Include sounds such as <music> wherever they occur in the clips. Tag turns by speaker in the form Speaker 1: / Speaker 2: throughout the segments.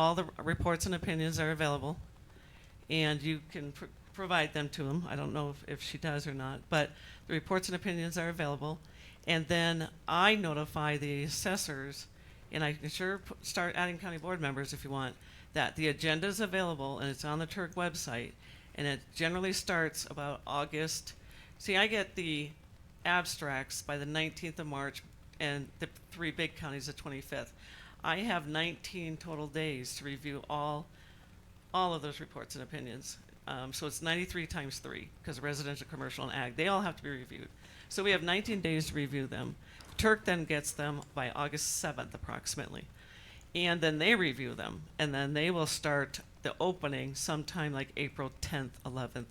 Speaker 1: All the reports and opinions are available, and you can pr- provide them to him. I don't know if, if she does or not, but the reports and opinions are available. And then I notify the assessors, and I can sure p- start adding county board members if you want, that the agenda is available and it's on the Turk website. And it generally starts about August. See, I get the abstracts by the 19th of March and the three big counties the 25th. I have 19 total days to review all, all of those reports and opinions. Um, so it's 93 times three because residential, commercial, and ag, they all have to be reviewed. So we have 19 days to review them. Turk then gets them by August 7th approximately. And then they review them and then they will start the opening sometime like April 10th, 11th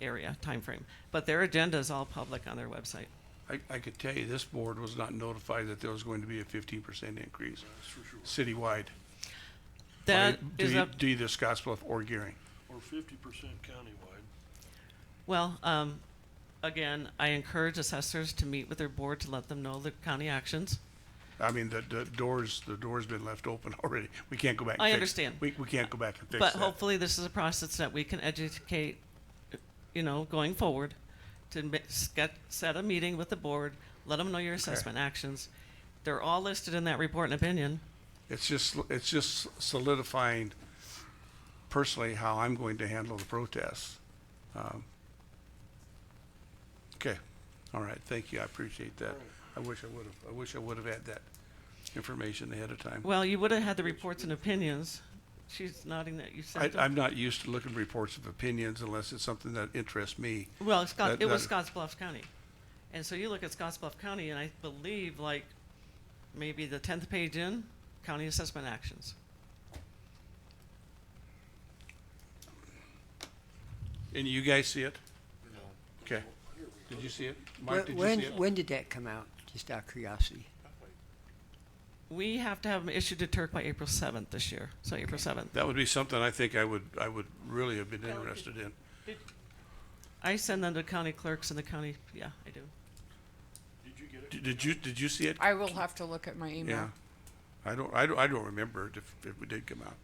Speaker 1: area timeframe. But their agenda is all public on their website.
Speaker 2: I, I could tell you, this board was not notified that there was going to be a fifteen percent increase citywide. by-
Speaker 1: That
Speaker 2: to
Speaker 1: is
Speaker 2: e-
Speaker 1: up,
Speaker 2: To either Scotts Bluff or Gearing.
Speaker 3: Or fifty percent countywide.
Speaker 1: well, um, again, I encourage assessors to meet with their board to let them know the county actions.
Speaker 2: I mean, the, the doors, the door's been left open <laughs> already. We can't go back and
Speaker 1: I
Speaker 2: fix.
Speaker 1: understand.
Speaker 2: We, we can't go back and fix
Speaker 1: But
Speaker 2: that.
Speaker 1: hopefully this is a process that we can educate, you know, going forward to ma- s- get, set a meeting with the board, let them know your assessment actions. They're all listed in that report and opinion.
Speaker 2: It's just, it's just solidifying personally how I'm going to handle the protests. Um, Okay, all right, thank you, I appreciate that. I wish I would have, I wish I would have had that information ahead of time.
Speaker 1: Well, you would have had the reports and opinions. She's nodding that you
Speaker 2: I,
Speaker 1: sent them.
Speaker 2: I'm not used to looking at reports of opinions unless it's something that interests me.
Speaker 1: Well, Scott,
Speaker 2: that-
Speaker 1: it was
Speaker 2: that-
Speaker 1: Scotts Bluff County. And so you look at Scotts Bluff County and I believe like maybe the tenth page in, county assessment actions.
Speaker 2: And you guys see it? No. Okay. Did you see it? Mike, did
Speaker 4: When,
Speaker 2: you see
Speaker 4: when,
Speaker 2: it?
Speaker 4: when did that come out? Just out of curiosity.
Speaker 1: We have to have them issued to Turk by April seventh this year, so April seventh.
Speaker 2: That would be something I think I would, I would really have been interested in.
Speaker 1: I send them to county clerks in the county, yeah, I do.
Speaker 3: Did you get it?
Speaker 2: Did- Did you, did you see it?
Speaker 5: I will have to look at my
Speaker 2: Yeah.
Speaker 5: email.
Speaker 2: I don't, I don't, I don't remember it if, if it did come out.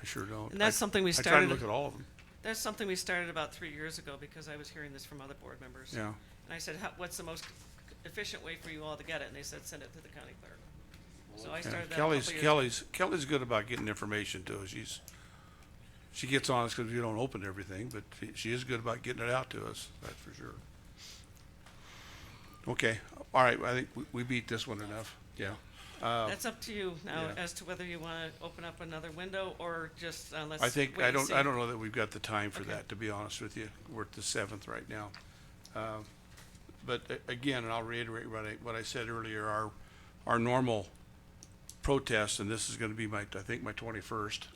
Speaker 2: I sure don't.
Speaker 1: And that's
Speaker 2: I-
Speaker 1: something we
Speaker 2: I try
Speaker 1: started-
Speaker 2: to look at all of them,
Speaker 1: That's something we started about three years ago because I was hearing this from other board members.
Speaker 2: yeah.
Speaker 1: And I said, "How- what's the most efficient way for you all to get it? And they said, send it to the county clerk. So I
Speaker 2: Yeah.
Speaker 1: started that a couple
Speaker 2: Kelly's,
Speaker 1: years ago.
Speaker 2: Kelly's, Kelly's good about getting information to us. She's, she gets on us because we don't open everything, but she- she is good about getting it out to us, that's for sure. Okay, all right, I think we, we beat this one enough, yeah. Uh,
Speaker 1: That's up to you now
Speaker 2: Yeah.
Speaker 1: as to whether you want to open up another window or just, uh, let's.
Speaker 2: I think,
Speaker 1: wait
Speaker 2: I
Speaker 1: and
Speaker 2: don't,
Speaker 1: see.
Speaker 2: I don't know that we've got the time for
Speaker 1: Okay.
Speaker 2: that, to be honest with you. We're at the seventh right now. Um, But a- again, and I'll reiterate what I, what I said earlier, our, our normal protest, and this is gonna be my, I think, my twenty-first,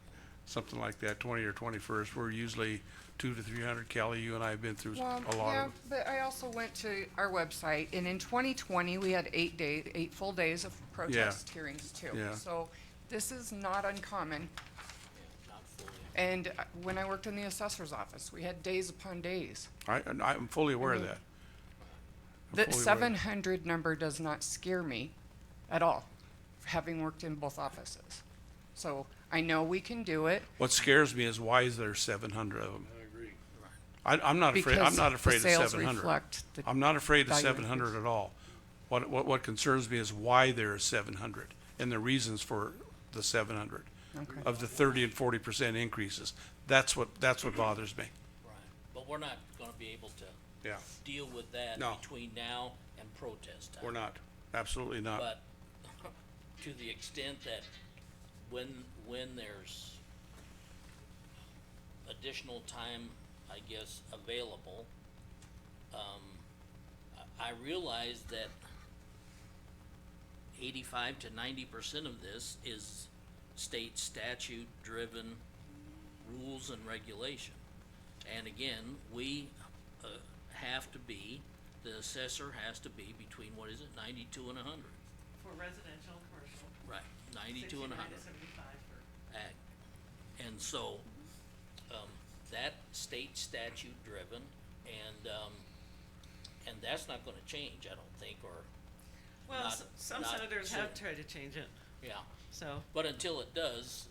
Speaker 2: <laughs> something like that, twenty or twenty-first, we're usually two to three hundred. Kelly, you and I have been through
Speaker 5: Well,
Speaker 2: a lot
Speaker 5: yeah,
Speaker 2: of,
Speaker 5: but I also went to our website, and in twenty twenty, we had eight days, eight full days of protest hearings too.
Speaker 2: Yeah.
Speaker 5: So this is not uncommon. And uh, when I worked in the assessor's office, we had days upon days.
Speaker 2: I, and I'm fully aware of that. I'm fully
Speaker 5: The
Speaker 2: aware of
Speaker 5: seven
Speaker 2: that.
Speaker 5: hundred number does not scare me at all, having worked in both offices. So I know we can do it.
Speaker 2: What scares me is why is there seven hundred of them?
Speaker 3: I agree.
Speaker 2: I, I'm not afraid, I'm
Speaker 5: because
Speaker 2: not
Speaker 5: the
Speaker 2: afraid of
Speaker 5: sales
Speaker 2: seven hundred.
Speaker 5: reflect the-
Speaker 2: I'm not afraid of
Speaker 5: value
Speaker 2: seven hundred at all. What, what, what concerns me is why there is seven hundred and the reasons for the seven hundred.
Speaker 5: Okay.
Speaker 2: Of the thirty and forty percent increases. That's what, that's what bothers me.
Speaker 6: Right, but we're not gonna be able to
Speaker 2: Yeah,
Speaker 6: deal with that
Speaker 2: No.
Speaker 6: between now and protest time.
Speaker 2: we're not, absolutely not.
Speaker 6: But <laughs> to the extent that when, when there's additional time, I guess, available, um, I, I realize that eighty-five to ninety percent of this is state statute-driven rules and regulation. And again, we, uh, have to be, the assessor has to be between, what is it, ninety-two and a hundred?
Speaker 1: For residential, commercial,
Speaker 6: Right, ninety-two and
Speaker 1: 69 to
Speaker 6: a hundred,
Speaker 1: 75 for-
Speaker 6: ag. And so, um, that state statute driven, and, um, and that's not gonna change, I don't think, or,
Speaker 1: Well,
Speaker 6: Not-
Speaker 1: s- some
Speaker 6: not
Speaker 1: senators have
Speaker 6: soon.
Speaker 1: tried to change it,
Speaker 6: yeah.
Speaker 1: so.
Speaker 6: But until it does,